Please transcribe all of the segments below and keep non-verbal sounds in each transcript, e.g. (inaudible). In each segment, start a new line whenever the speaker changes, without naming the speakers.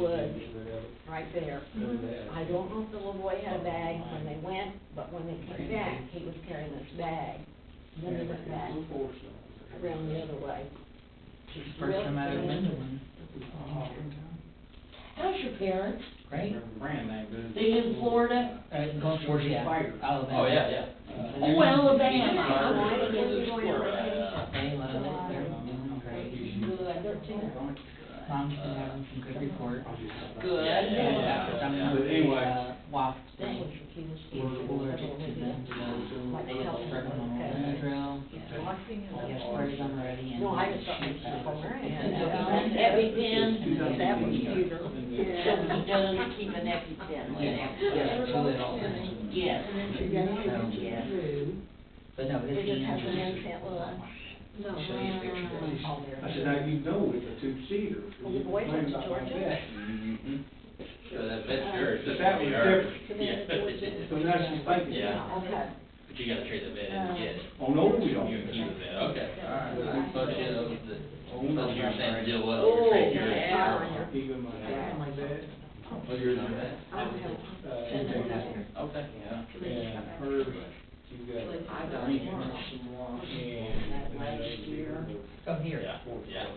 woods, right there. I
I
don't know if the little boy had a bag when they went, but when they came back, he was carrying this bag. And Then he went back around the other way.
She's first time out of Mendon.
How's your parents?
Great.
They in Florida?
Uh, Gulf War, yeah, Alabama.
Oh, yeah, yeah.
Oh, Alabama.
Oh, I didn't know you were going on vacation.
They love it, they're doing great.
Good.
Thirteen.
Mom's been having some good reports.
Good.
Yeah, yeah, yeah,
About the
yeah.
dump,
But anyway,
uh,
That
WAF
was
thing.
your key was.
People are addicted to them, to those, they love spreading them on Benadryl, they're sprayed them already and.
No, I just thought it was just over it. That was cuter.
So he doesn't keep an EpiPen with him?
Yeah, yeah, do it all the time.
Yes.
So,
Yes.
But no, his
Did it have an
hands.
infant with a-
No. Show you pictures.
All there.
I said, now you know it's a two-seater.
Well, the boy went to
Mhm.
Georgia.
Mm-hmm. So that, that's
Uh,
yours.
But that was different,
To me, it was just-
so now she's thinking.
Yeah.
Okay.
But you gotta trade the bid and get it.
Oh, no, we don't.
You can do that, okay.
All right.
I thought you, that was the,
Oh, no.
that's your same deal, well,
Oh,
you're trading your.
yeah.
Even my.
Yeah, my bad.
Well, yours on that.
I don't have.
Uh,
Send her that.
Okay, yeah.
And hers, you got.
I've got
green
one.
one, and
That last year.
Oh, here.
Yeah, yeah.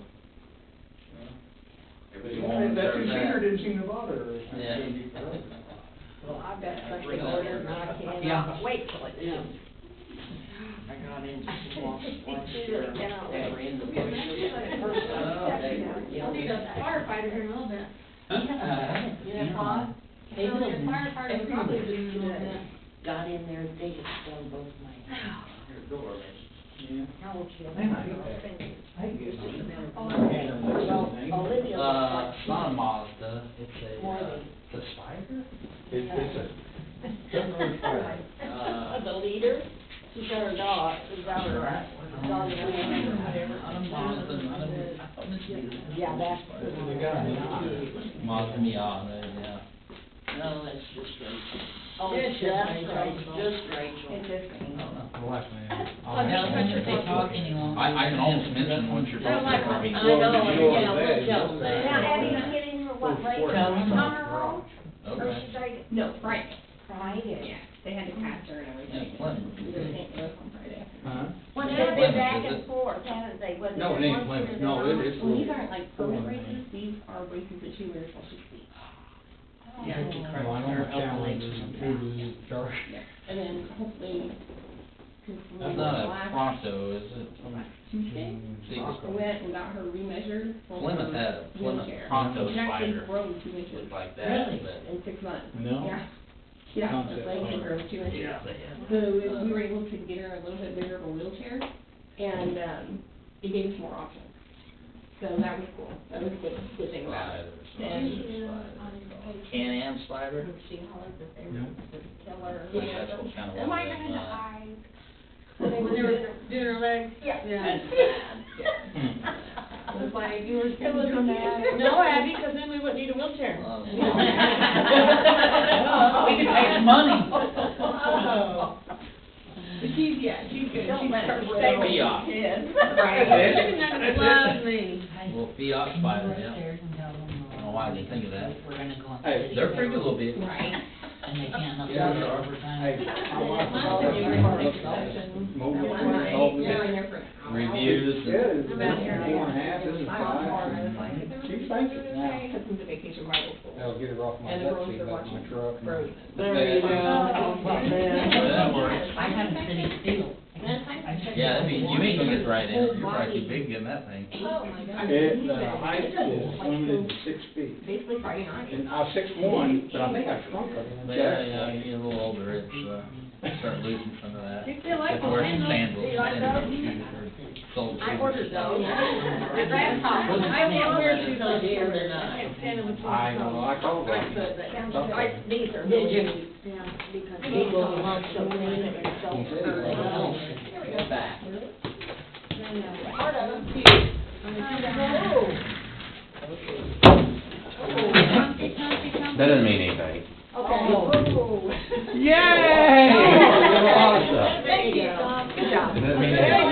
Everybody wants to
That
serve
two-seater
that.
didn't seem to bother her. It's
Yeah.
gonna be forever.
Well, I've got something ordered and I
Yeah.
cannot wait till it comes.
I got into some
(laughs)
walks last
Pictures
year.
that cannot
They were
wait.
in the bushes. The first time they were
I'll
yelling.
need a firefighter here in a little bit.
Uh,
Yeah. Uh-huh.
Yeah.
I'll need a firefighter to probably do in a little bit.
Got in there, they just stung both my hands.
Your door,
Yeah.
How old she is?
They might
I can get
Just a
some.
matter of-
Well,
Olivia
Uh,
looks
it's
like
not a Mazda, it's a, uh, the Spider?
It's, it's a, definitely fire.
Uh,
(laughs) The leader, she's got her dog, she's got her, uh, dog, or whatever.
Not a Mazda, not a- I thought this was a-
Yeah, that's.
That's what they got, isn't it?
Mazda Miata, yeah.
No, that's just Rachel.
Oh,
It's
it's
just
Rachel.
Rachel, just Rachel.
It's just
I
me.
don't know.
Oh,
I don't think they talk any longer.
I, I can almost mention what you're
They're
talking
like,
about.
I
mean,
know,
you know
yeah,
that,
we'll
you
tell
know
them
that.
Now,
that.
Abby's getting her what, late
Tell them.
tomorrow? Or
Okay.
she's like,
No, Friday.
Friday?
Yeah, Mm-hmm. they had to cast her and everything.
Yeah, Clinton.
They sent her on Friday.
Huh?
Well,
Yeah,
they've
Plymouth,
been back
is
and
it?
forth, haven't they? Was
No,
just
it ain't
once
Plymouth.
year
No,
they're not?
it is-
Well, these aren't like permanent races, these are races that she wears while she's asleep.
Yeah, you correct her, help the ladies or something.
And then hopefully. can-
That's not a
last
Pronto, is it?
Tuesday,
See,
I went and got her remeasured. for
Plymouth
her
had a Plymouth
wheelchair.
Pronto
She's actually
Spider.
grown two inches
Looked like that,
Really?
but.
in six months.
No?
Yeah. Yeah,
Concept
like
car.
grown two inches.
they had.
So if we were able to get her a little bit bigger of a wheelchair, and, um, it gave us more options. So that was cool, that was a good, good thing about it.
Spider, spider. Can Am spider?
She hollered that they
No.
were, tell her.
Which that's what kind of.
Am I
was in
gonna
(laughs)
die?
mine.
When they were doing her legs?
Yeah.
Yeah.
(laughs) It was like, you were.
It was mad.
(laughs) No, Abby, because then we wouldn't need a wheelchair.
Oh, We can save
(laughs)
money.
Oh.
But she's, yeah, she's good,
Don't
she's
let her
her
stay
with you.
kids.
(laughs)
Right.
She's gonna love me.
Well, Fiat spider, yeah.
Upstairs and tell them,
I don't know why I didn't think of that.
We're gonna go on.
Hey,
city
They're pretty
road,
little bit.
Right.
And they can't upload
Yeah, they
it
are.
over
Hey,
time.
my wife was all that.
Mine, they were like
Mobile
That one
phone,
night,
all
we were in
this.
there for an hour.
Reviews.
Yeah, it's
I'm
one
out here.
and a half, this is
I got home, I was
five.
like, is
She
everything
thinks it
okay?
now.
Took them to vacation Bible school.
I'll get her off my
And the
duck
girls
seat,
are
off my
watching
truck. and-
Frozen.
There you go.
Well,
Well,
Yeah.
that works.
I have a city seal. I checked
Yeah, I
it
mean,
out
you ain't gonna get
once.
right in, it. you're probably too big in that thing.
Oh, my God.
At the high school, it's limited to six feet.
Basically Friday night.
And I was six one, but I think I shrunk her.
But yeah, yeah, you get a little older, it's, uh, start losing some of that.
You feel like
Just wear some
those
sandals,
sandals? You like
sandals,
those?
shoes, or sole
I
shoes.
ordered those.
Yeah.
Grandpa, I can't wear shoes on here.
They're not.
I can't stand them with shoes
I know,
on.
I told her.
I said that.
Okay.
I, these are
Did
really
you?
neat. Yeah. Because these are not so clean and they're so
Oh.
Back.
Part of them.
That doesn't mean anything.
Okay.
Yay!
(laughs)
There you go. Good job.
That doesn't mean
There